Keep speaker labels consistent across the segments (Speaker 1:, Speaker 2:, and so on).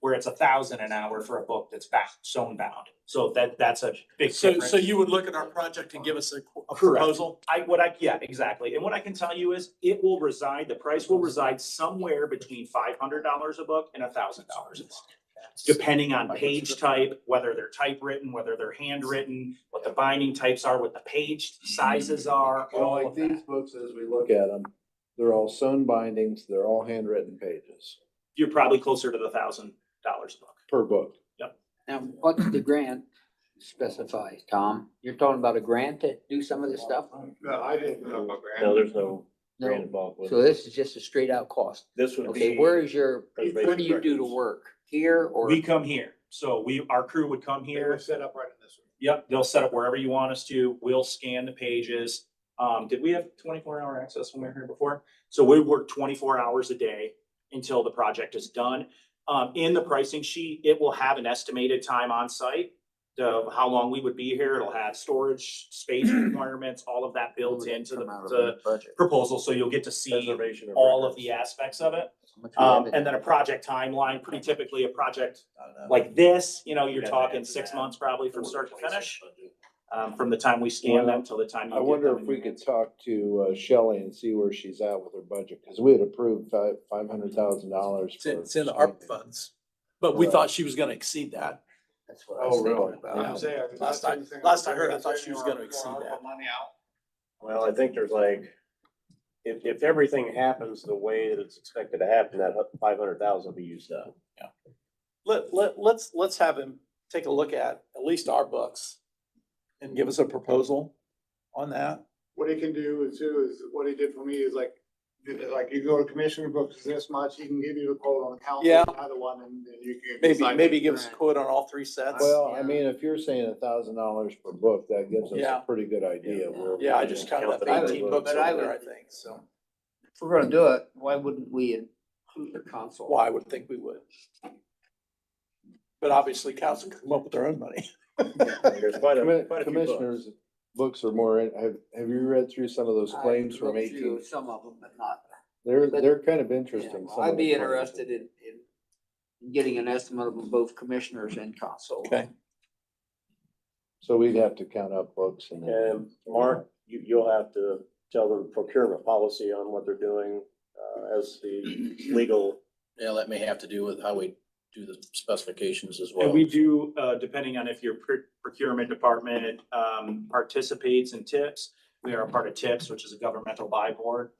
Speaker 1: where it's a thousand an hour for a book that's bound, zone bound. So that, that's a big
Speaker 2: So,
Speaker 1: difference.
Speaker 2: so you would look at our project and give us a a
Speaker 1: Correct.
Speaker 2: proposal?
Speaker 1: I, what I, yeah, exactly. And what I can tell you is it will reside, the price will reside somewhere between five hundred dollars a book and a thousand dollars a book. Depending on page type, whether they're typewritten, whether they're handwritten, what the binding types are, what the page sizes
Speaker 2: Mm-hmm.
Speaker 1: are,
Speaker 3: Well,
Speaker 1: all
Speaker 3: like
Speaker 1: of that.
Speaker 3: these books, as we look at them, they're all sewn bindings, they're all handwritten pages
Speaker 1: You're probably closer to the thousand dollars a book.
Speaker 3: per book.
Speaker 4: Now, what's the grant specify, Tom? You're talking about a grant to do some of this stuff?
Speaker 5: No, I didn't know about grant.
Speaker 6: No, there's no grant
Speaker 4: No,
Speaker 6: involved with
Speaker 4: so
Speaker 6: it.
Speaker 4: this is just a straight out cost.
Speaker 6: This would
Speaker 4: Okay,
Speaker 6: be,
Speaker 4: where is your,
Speaker 6: Preservation
Speaker 4: what do you do to
Speaker 6: records.
Speaker 4: work? Here or?
Speaker 1: We come here, so we, our crew would come
Speaker 5: They
Speaker 1: here.
Speaker 5: were set up right in this one.
Speaker 1: Yep, they'll set up wherever you want us to. We'll scan the pages. Um, did we have twenty-four hour access when we were here before? So we work twenty-four hours a day until the project is done. Um, in the pricing sheet, it will have an estimated time on site. Of how long we would be here. It'll have storage, space requirements, all of that built into the,
Speaker 4: Come out of
Speaker 1: the
Speaker 4: budget.
Speaker 1: proposal, so you'll get to see
Speaker 6: preservation of.
Speaker 1: all of
Speaker 6: records.
Speaker 1: the aspects of it.
Speaker 4: How much we
Speaker 1: Um,
Speaker 4: have in-
Speaker 1: and then a project timeline, pretty typically a project
Speaker 6: I don't know.
Speaker 1: like this, you know,
Speaker 6: You'd
Speaker 1: you're
Speaker 6: have to
Speaker 1: talking
Speaker 6: add to
Speaker 1: six
Speaker 6: that.
Speaker 1: months probably from
Speaker 6: Or
Speaker 1: start to
Speaker 6: replace it.
Speaker 1: finish um, from the time we scan them till the time. you
Speaker 3: I
Speaker 1: get
Speaker 3: wonder
Speaker 1: them
Speaker 3: if
Speaker 1: in
Speaker 3: we
Speaker 1: your
Speaker 3: could
Speaker 1: hands.
Speaker 3: talk to uh, Shelley and see where she's at with her budget, because we had approved five, five hundred thousand dollars.
Speaker 2: It's in, it's in the ARP funds, but we thought she was gonna exceed that.
Speaker 4: That's what I was
Speaker 3: Oh, really?
Speaker 4: thinking
Speaker 5: I
Speaker 4: about.
Speaker 5: was there.
Speaker 2: Last I-
Speaker 5: Everything
Speaker 2: last I
Speaker 5: was
Speaker 2: heard,
Speaker 5: there.
Speaker 2: I thought she was gonna exceed
Speaker 5: Our
Speaker 2: that.
Speaker 5: Money out.
Speaker 6: Well, I think there's like, if, if everything happens the way that it's expected to happen, that five hundred thousand will be used up.
Speaker 2: Let, let, let's, let's have him take a look at at least our books and give us a proposal on that.
Speaker 5: What he can do is too is what he did for me is like, did it like you go to commissioner books is this much, he can give you the quote on the council,
Speaker 2: Yeah.
Speaker 5: another one and then you can.
Speaker 2: Maybe,
Speaker 5: decide
Speaker 2: maybe
Speaker 5: which
Speaker 2: give us a
Speaker 5: grant.
Speaker 2: quote on all three sets.
Speaker 3: Well, I mean, if you're saying a thousand dollars per book, that gives us
Speaker 2: Yeah.
Speaker 3: a pretty good idea. where
Speaker 2: Yeah, I
Speaker 3: we're
Speaker 2: just
Speaker 3: at.
Speaker 2: counted up
Speaker 6: But I would-
Speaker 2: eighteen books
Speaker 4: but I
Speaker 2: over there, I
Speaker 4: would-
Speaker 2: think, so.
Speaker 4: If we're gonna do it, why wouldn't we include the console?
Speaker 2: Well, I would think we would. But obviously council can come up with their own money.
Speaker 6: There's quite a,
Speaker 3: Commi-
Speaker 6: quite a few books.
Speaker 3: Commissioners, books are more, in- have, have you read through some of those
Speaker 4: I
Speaker 3: claims from
Speaker 4: looked through
Speaker 3: eighteen?
Speaker 4: Some of them, but not.
Speaker 3: They're,
Speaker 4: but-
Speaker 3: they're kind of interesting.
Speaker 4: Yeah,
Speaker 3: some of
Speaker 4: I'd
Speaker 3: the
Speaker 4: be
Speaker 3: claims.
Speaker 4: interested in, in getting an estimate of both commissioners and console.
Speaker 2: Okay.
Speaker 3: So we'd have to count up books and. then-
Speaker 6: And Mark, you, you'll have to tell them procurement policy on what they're doing, uh, as the legal.
Speaker 7: Yeah, that may have to do with how we do the specifications as well.
Speaker 1: And we do, uh, depending on if your pr- procurement department, um, participates in TIPS. We are a part of TIPS, which is a governmental buy board.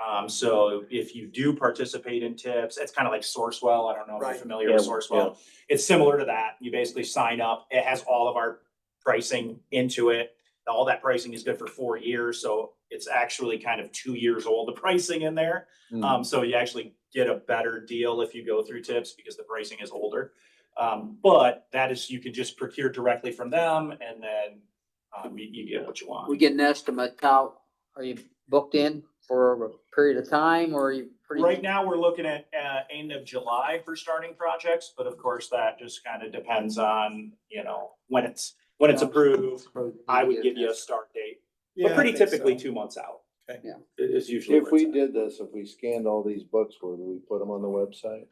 Speaker 1: Um, so if you do participate in TIPS, it's kind of like Sourcewell. I don't know if you're
Speaker 2: Right.
Speaker 1: familiar with
Speaker 6: Yeah,
Speaker 1: Sourcewell. It's similar to that. You basically sign up. It has all of our pricing into it. All that pricing is good for four years, so it's actually kind of two years old, the pricing in there.
Speaker 3: Hmm.
Speaker 1: Um, so you actually get a better deal if you go through tips because the pricing is older. Um, but that is, you can just procure directly from them and then, um, you, you get what you
Speaker 4: We
Speaker 1: want.
Speaker 4: get an estimate, how, are you booked in for a period of time or are you pretty?
Speaker 1: Right now, we're looking at, uh, end of July for starting projects, but of course that just kind of depends on, you know, when it's, when it's approved. I would give you a start date, but pretty typically two months out.
Speaker 2: Okay.
Speaker 4: Yeah.
Speaker 1: It is usually.
Speaker 3: If
Speaker 1: where it's
Speaker 3: we
Speaker 1: at.
Speaker 3: did this, if we scanned all these books, would we put them on the website?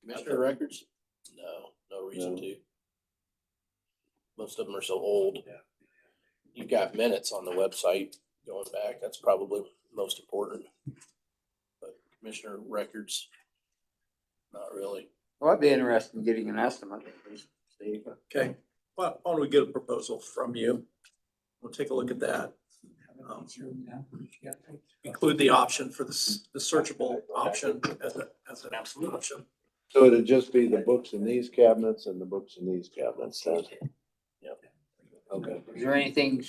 Speaker 7: Commissioner records? No, no reason
Speaker 3: No.
Speaker 7: to. Most of them are so old. You've got minutes on the website going back. That's probably most important. But commissioner records, not really.
Speaker 4: Well, I'd be interested in getting an estimate. at least, Steve.
Speaker 2: Okay, why why don't we get a proposal from you? We'll take a look at that. Um, Include the option for the, s- the searchable option as a, as an absolute option.
Speaker 3: So it'd just be the books in these cabinets and the books in these cabinets, then? Okay.
Speaker 4: Is there anything?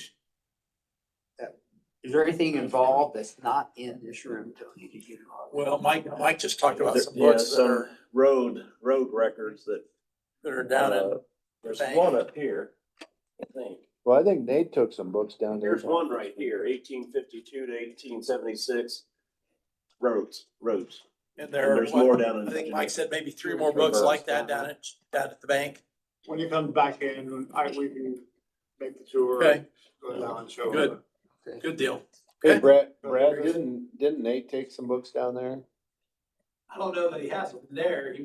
Speaker 4: that- Is there anything involved that's not in this room, Tony? that you know of?
Speaker 2: Well, Mike, Mike just talked about some
Speaker 6: There- um, yeah,
Speaker 2: books that
Speaker 6: some
Speaker 2: are,
Speaker 6: Road, road records that,
Speaker 2: that are down
Speaker 6: uh,
Speaker 2: at,
Speaker 6: there's
Speaker 2: Bank.
Speaker 6: one up here, I think.
Speaker 3: Well, I think Nate took some books down there.
Speaker 6: There's one right here, eighteen fifty-two to eighteen seventy-six. Roads, roads.
Speaker 2: and
Speaker 6: And
Speaker 2: there are,
Speaker 6: there's more
Speaker 2: what-
Speaker 6: down in.
Speaker 2: I think Mike said maybe three more books like that down at, down at the bank.
Speaker 5: When he comes back in, I, we can make the tour.
Speaker 2: Okay.
Speaker 5: Go down and show.
Speaker 2: Good.
Speaker 5: him.
Speaker 4: Okay.
Speaker 2: Good deal.
Speaker 3: Hey, Brad, Brad, didn't, didn't Nate take some books down there?
Speaker 2: I don't know that he has them there. He